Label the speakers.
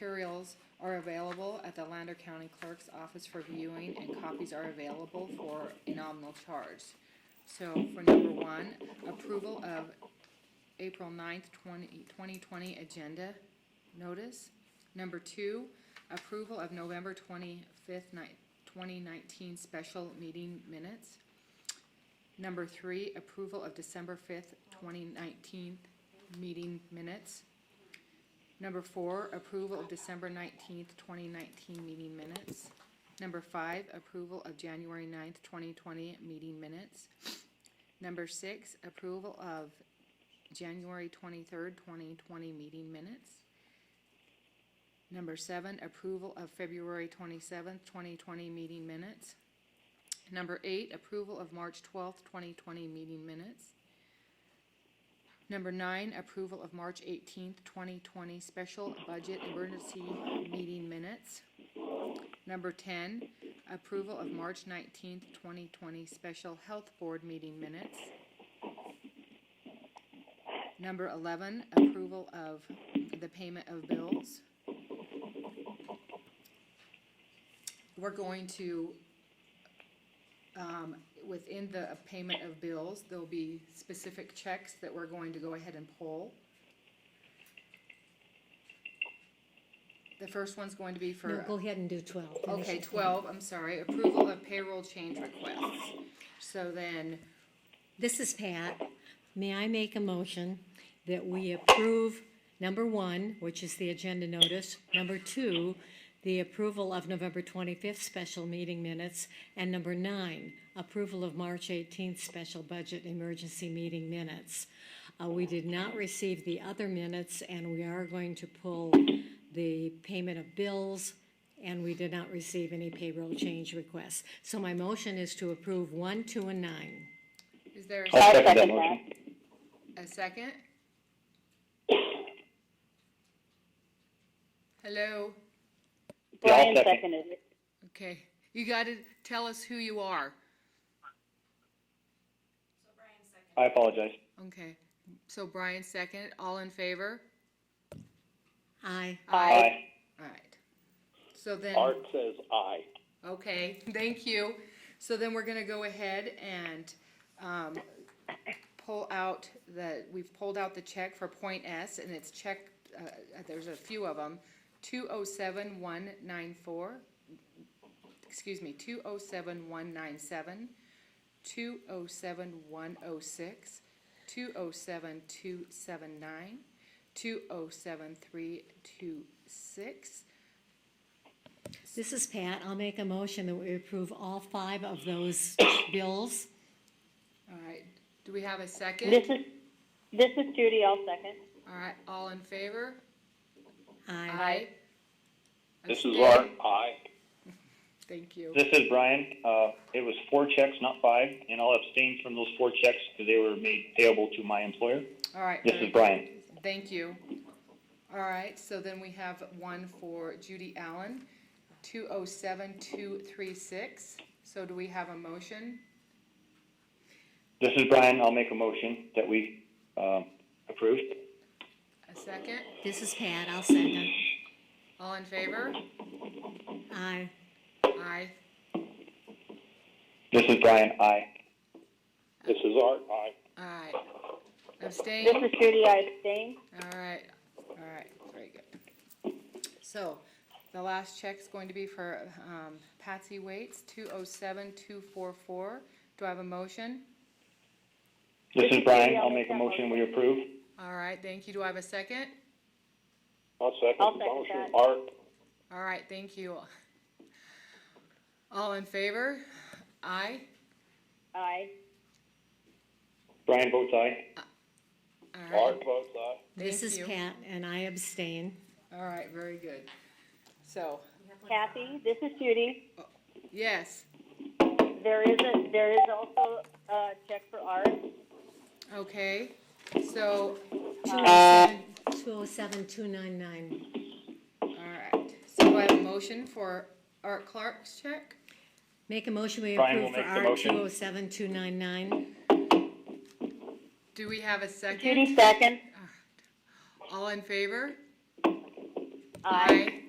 Speaker 1: materials are available at the Lander County Clerk's Office for viewing, and copies are available for a nominal charge. So for number one, approval of April 9th, 20 2020 agenda notice. Number two, approval of November 25th, ni- 2019 special meeting minutes. Number three, approval of December 5th, 2019 meeting minutes. Number four, approval of December 19th, 2019 meeting minutes. Number five, approval of January 9th, 2020 meeting minutes. Number six, approval of January 23rd, 2020 meeting minutes. Number seven, approval of February 27th, 2020 meeting minutes. Number eight, approval of March 12th, 2020 meeting minutes. Number nine, approval of March 18th, 2020 special budget emergency meeting minutes. Number 10, approval of March 19th, 2020 special health board meeting minutes. Number 11, approval of the payment of bills. We're going to um, within the payment of bills, there'll be specific checks that we're going to go ahead and pull. The first one's going to be for.
Speaker 2: No, go ahead and do twelve. Finish
Speaker 1: Okay,
Speaker 2: it.
Speaker 1: twelve, I'm sorry, approval of payroll change requests. So then,
Speaker 2: This is Pat. May I make a motion that we approve number one, which is the agenda notice, number two, the approval of November twenty-fifth special meeting minutes, and number nine, approval of March eighteenth special budget emergency meeting minutes. Uh, we did not receive the other minutes, and we are going to pull the payment of bills, and we did not receive any payroll change requests. So my motion is to approve one, two, and nine.
Speaker 1: is there
Speaker 3: I'll
Speaker 1: a-
Speaker 3: second that motion.
Speaker 1: a second? Hello,
Speaker 3: I'll
Speaker 4: Brian
Speaker 3: second.
Speaker 4: seconded it.
Speaker 1: okay, you gotta tell us who you are,
Speaker 3: I apologize.
Speaker 1: okay. So Brian second, all in favor?
Speaker 2: Aye.
Speaker 3: Aye.
Speaker 1: Alright, so then.
Speaker 3: Art says aye.
Speaker 1: Okay, thank you. So then we're gonna go ahead and, um, pull out the, we've pulled out the check for Point S, and it's check, uh, there's a few of them, two oh seven one nine four, excuse me, two oh seven one nine seven, two oh seven one oh six, two oh seven two seven nine, two oh seven three two six,
Speaker 2: This is Pat. I'll make a motion that we approve all five of those bills.
Speaker 1: all right. Do we have a second?
Speaker 4: This is, this is Judy, I'll second.
Speaker 1: All right, all in favor?
Speaker 2: Aye.
Speaker 3: This is Art.
Speaker 1: Abstain?
Speaker 3: Aye.
Speaker 1: Thank you.
Speaker 3: This is Brian. Uh, it was four checks, not five, and I'll abstain from those four checks because they were made payable to my employer.
Speaker 1: All right.
Speaker 3: This is Brian.
Speaker 1: Thank you. All right, so then we have one for Judy Allen, two oh seven two three six. So do we have a motion?
Speaker 3: This is Brian. I'll make a motion that we um, approve.
Speaker 1: A second?
Speaker 2: This is Pat. I'll second.
Speaker 1: All in favor?
Speaker 2: Aye.
Speaker 1: Aye.
Speaker 3: This is Brian. Aye. This is Art. Aye.
Speaker 1: Aye.
Speaker 4: This
Speaker 1: Abstain?
Speaker 4: is Judy, I abstain.
Speaker 1: All right, all right, very good. So, the last check's going to be for, um, Patsy Waits, two oh seven two four four. Do I have a motion?
Speaker 3: This is Brian. I'll make a motion. We approve.
Speaker 1: All right, thank you. Do I have a second?
Speaker 3: I'll second
Speaker 4: I'll the second motion.
Speaker 3: Art.
Speaker 1: All right, thank you. All in favor? Aye.
Speaker 4: Aye.
Speaker 3: Brian votes aye.
Speaker 1: All right,
Speaker 3: votes aye.
Speaker 2: This
Speaker 1: Thank
Speaker 2: is
Speaker 1: you.
Speaker 2: Pat, and I abstain.
Speaker 1: all right, very good. So,
Speaker 4: Kathy, this is Judy.
Speaker 1: yes,
Speaker 4: There is a, there is also a check for Art.
Speaker 1: okay, so,
Speaker 2: Two oh seven, two nine nine.
Speaker 1: all right. So do I have a motion for Art Clark's check?
Speaker 2: Make a motion we
Speaker 3: Brian will
Speaker 2: approve for
Speaker 3: make the
Speaker 2: R
Speaker 3: motion.
Speaker 2: two oh seven, two nine nine.
Speaker 1: Do we have a second?
Speaker 4: Judy second.
Speaker 1: All in favor? Aye.